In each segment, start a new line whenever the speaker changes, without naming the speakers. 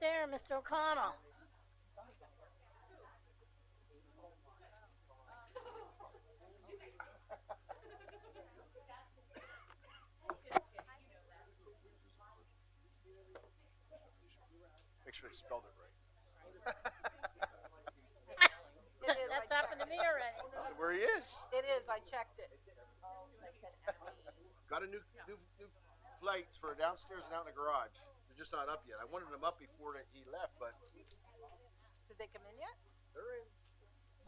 there, Mr. O'Connell.
Make sure you spelled it right.
It is, I
That's happened to me already.
Where he is.
It is, I checked it.
Got a new, new, new lights for downstairs and out in the garage. They're just not up yet. I wanted them up before that he left, but
Did they come in yet?
they're in.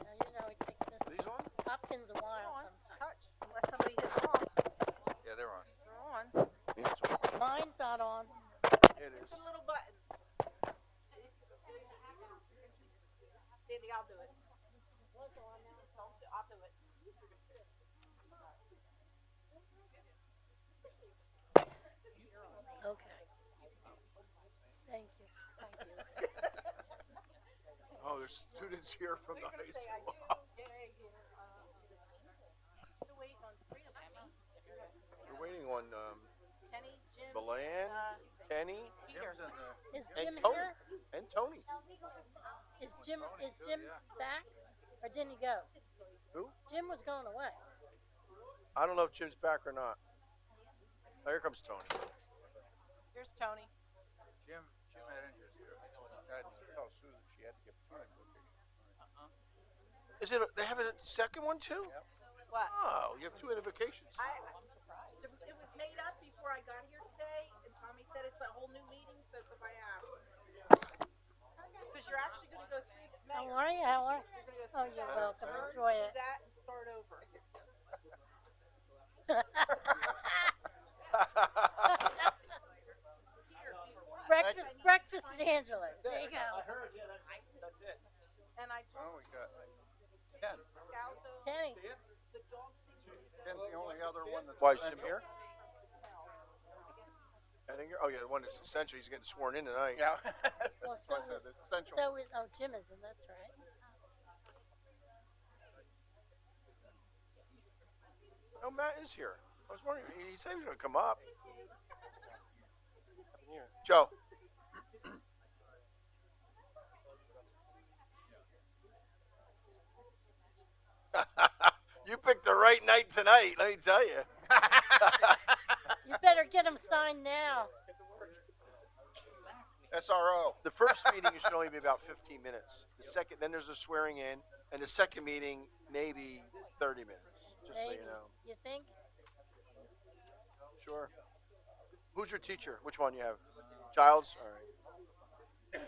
Now, you know, it takes
Are
Mr.
these on?
Hopkins a
They're
while.
on, touch, unless somebody hit them off,
Yeah, they're on.
they're on. It's
some- Mine's not on.
It is.
a little button. Sandy, I'll do it. Don't do- I'll do it.
Okay. Thank you. Thank you.
Oh, there's students here from the
They're gonna
high
say I
school.
do. Yeah, yeah, um, Still waiting on three of them.
We're waiting on um,
Kenny, Jim,
Milan,
uh,
Kenny,
Peter.
Is
And
Jim
Tony.
here?
and Tony.
Is Jim, is Jim back? Or didn't he go?
Who?
Jim was going away.
I don't know if Jim's back or not. Oh, here comes Tony.
Here's Tony.
Jim, Jim had injuries here.
tell Susan she had to get time.
Is it? They have a second one too?
What?
Oh, you have two invocations.
I, I'm surprised. It was made up before I got here today, and Tommy said it's a whole new meeting, so, because I asked. Because you're actually gonna go through the
How
mayor.
are you? How are you?
You're gonna go
Oh,
through
you're
that,
welcome.
turn,
Enjoy
do
it.
That and start over.
breakfast, breakfast at Angela's. There you go.
heard, yeah, that's, that's it.
And I
Well,
told
we got Ken.
Scalzo,
Kenny,
the dog station,
Ken's the only other one that's.
Why is Jim
essential.
here? Ettinger? Oh, yeah, the one that's essential. He's getting sworn in tonight.
Yeah.
Well,
That's why I
so
said
is-
it's essential.
so is, oh, Jim isn't, that's right.
Oh, Matt is here. I was wondering. He he said he was going to come up. Joe. you picked the right night tonight, let me tell you.
You better get him signed now.
SRO.
The first meeting should only be about 15 minutes. The second, then there's a swearing in, and the second meeting, maybe 30 minutes, just so
Maybe.
you know.
You think?
Sure. Who's your teacher? Which one you have? Childs? All right.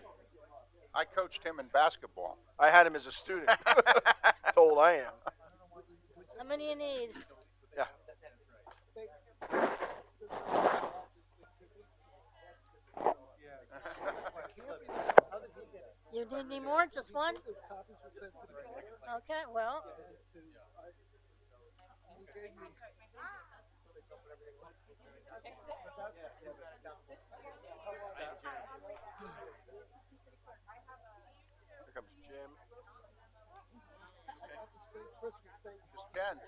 I coached him in basketball.
I had him as a student. That's old I am.
How many you need? You need any more? Just one? Okay, well,
Here comes Jim.
Just Ken.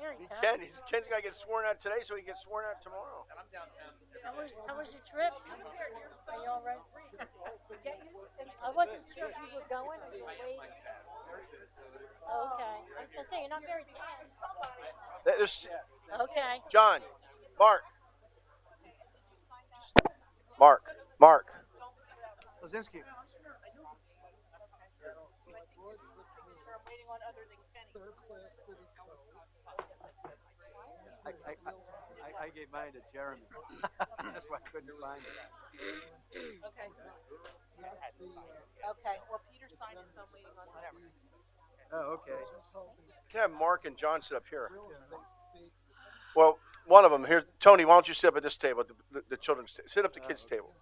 here
He
you go.
Ken, he's, Ken's got to get sworn out today so he gets sworn out tomorrow.
How was, how was your trip? Are you all right?
get you, and
I wasn't sure if you were going or you were waiting. Oh, Okay, I was gonna say, you're not very tense.
That is-
Okay,
John, Mark. Mark, Mark.
Lazinski.
I'm waiting on other than Kenny. Oh,
I, I, I, I gave mine to Jeremy. That's why I couldn't find it.
Okay. Okay, well, Peter signed it, so I'm waiting on whatever.
Oh, okay.
Can I have Mark and John sit up here? Well, one of them here. Tony, why don't you sit up at this table, the, the, the children's table? Sit up the kids' table.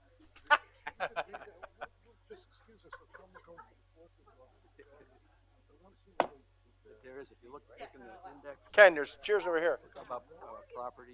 There is, if you look, look in the index
Ken, there's cheers over here.
about uh, property.